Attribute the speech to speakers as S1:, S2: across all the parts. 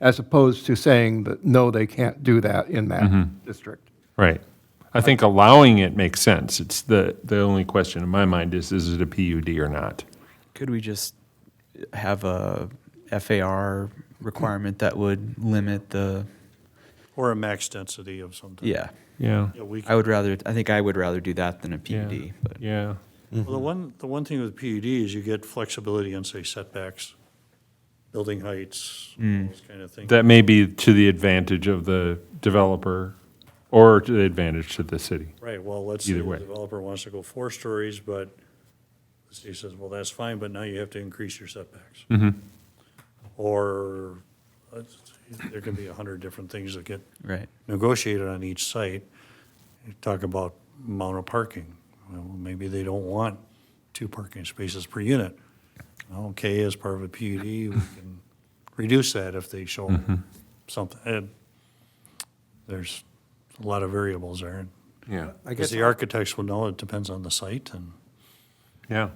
S1: as opposed to saying that, no, they can't do that in that district.
S2: Right. I think allowing it makes sense. It's the, the only question in my mind is, is it a PUD or not?
S3: Could we just have a FAR requirement that would limit the,
S4: Or a max density of something.
S3: yeah.
S2: Yeah,
S4: Yeah, we, could-
S3: I would rather, I think I would rather do that than a PUD, but
S2: yeah.
S4: well, the one, the one thing with PUD is you get flexibility on, say, setbacks, building heights, those kind of things.
S2: Mm. That may be to the advantage of the developer or to the advantage to the city.
S4: Right, well, let's say
S2: Either
S4: the
S2: way.
S4: developer wants to go four stories, but the city says, well, that's fine, but now you have to increase your setbacks.
S2: Mm-hmm.
S4: Or, uh, there can be a hundred different things that get
S3: right.
S4: negotiated on each site. You Talk about amount of parking. Well, maybe they don't want two parking spaces per unit. Okay, as part of a PUD, we can reduce that if they show something. And There's a lot of variables there.
S2: Yeah,
S1: I
S4: Because
S1: guess
S4: the architects will know, it depends on the site and.
S2: yeah.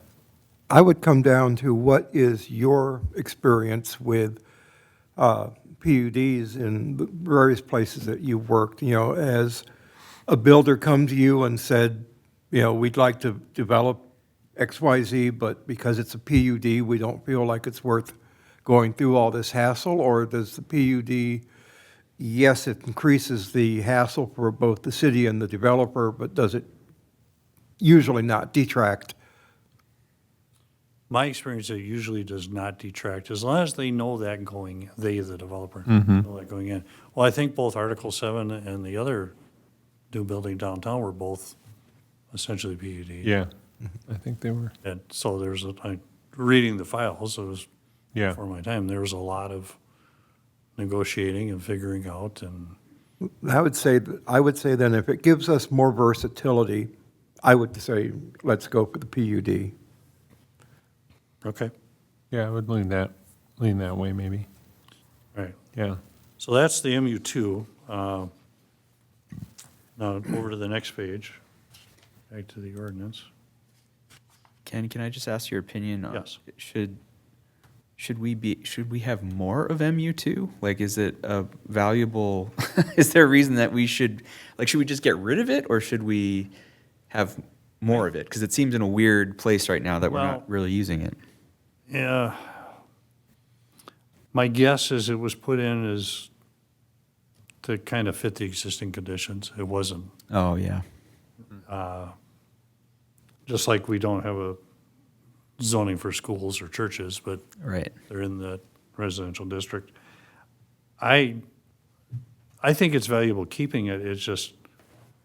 S1: I would come down to what is your experience with uh, PUDs in the various places that you worked, you know, as a builder come to you and said, you know, we'd like to develop XYZ, but because it's a PUD, we don't feel like it's worth going through all this hassle, or does the PUD, yes, it increases the hassle for both the city and the developer, but does it usually not detract?
S4: My experience, it usually does not detract, as long as they know that going, they, the developer,
S2: Mm-hmm.
S4: know that going in. Well, I think both Article Seven and the other new building downtown were both essentially PUD.
S2: Yeah, I think they were.
S4: And so there's, a- I, reading the files, it was
S2: Yeah,
S4: before my time, there was a lot of negotiating and figuring out and,
S1: I would say, th- I would say then if it gives us more versatility, I would say, let's go for the PUD.
S4: okay,
S2: yeah, I would lean that, lean that way maybe.
S4: all right.
S2: Yeah.
S4: So that's the MU two. Now, over to the next page, back to the ordinance.
S3: Ken, can I just ask your opinion? on-
S4: Yes.
S3: Should, should we be, should we have more of MU2? Like, is it a valuable, is there a reason that we should, like, should we just get rid of it or should we have more of it? Because it seems in a weird place right now that we're
S4: Well-
S3: not really using it.
S4: Yeah. My guess is it was put in as to kind of fit the existing conditions. It wasn't.
S3: Oh, yeah.
S4: Just like we don't have a zoning for schools or churches, but
S3: Right.
S4: they're in the residential district. I, I think it's valuable keeping it, it's just,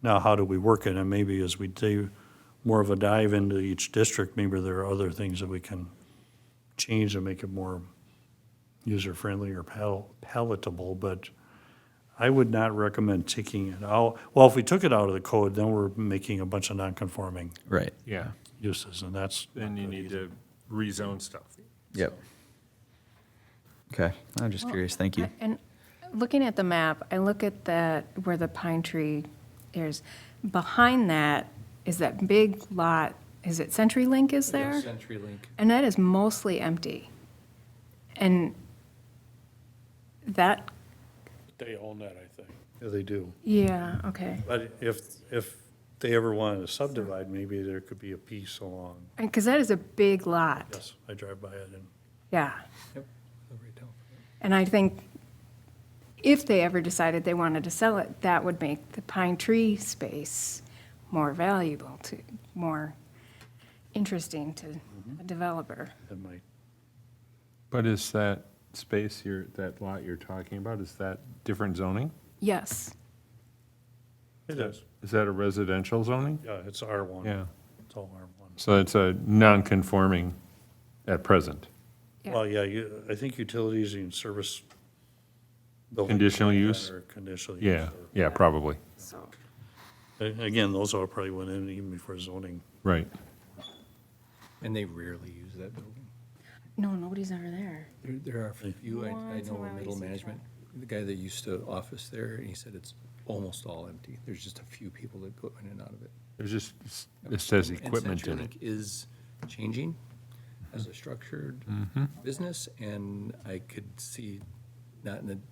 S4: now how do we work it? And maybe as we do more of a dive into each district, maybe there are other things that we can change and make it more user-friendly or pal- palatable, but I would not recommend taking it out. Well, if we took it out of the code, then we're making a bunch of non-conforming
S3: Right.
S2: Yeah,
S4: uses, and that's.
S2: then you need to rezone stuff.
S3: Yep. Okay. I'm just curious. Thank you.
S5: And looking at the map, I look at that, where the pine tree is. Behind that is that big lot, is it CenturyLink is there?
S3: CenturyLink.
S5: And that is mostly empty. And that,
S4: They own that, I think. Yeah, they do.
S5: yeah, okay.
S4: But if, if they ever wanted to subdivide, maybe there could be a piece along.
S5: Because that is a big lot,
S4: Yes, I drive by it and.
S5: yeah. And I think if they ever decided they wanted to sell it, that would make the pine tree space more valuable to, more interesting to a developer.
S4: It might.
S2: But is that space you're, that lot you're talking about, is that different zoning?
S5: Yes,
S4: It is.
S2: Is that a residential zoning?
S4: Yeah, it's R one.
S2: Yeah,
S4: It's all R one.
S2: so it's a non-conforming at present.
S5: Yeah.
S4: Well, yeah, you, I think utilities and service. buildings
S2: Conditional
S4: like that
S2: use?
S4: are Conditional use.
S2: Yeah, yeah, probably,
S5: so,
S4: or- a- Again, those all probably went in even before zoning.
S2: right.
S6: And they rarely use that building.
S5: no, nobody's ever there.
S6: There- There are a few, I I
S5: Once in a
S6: know
S5: while
S6: in
S5: you
S6: middle
S5: see
S6: management, the guy that used to office there, and he said it's almost all empty. There's just a few people that go in and out of it.
S2: There's just, it says
S6: And
S2: equipment in it.
S6: CenturyLink is changing as a structured business, and I could see, not in the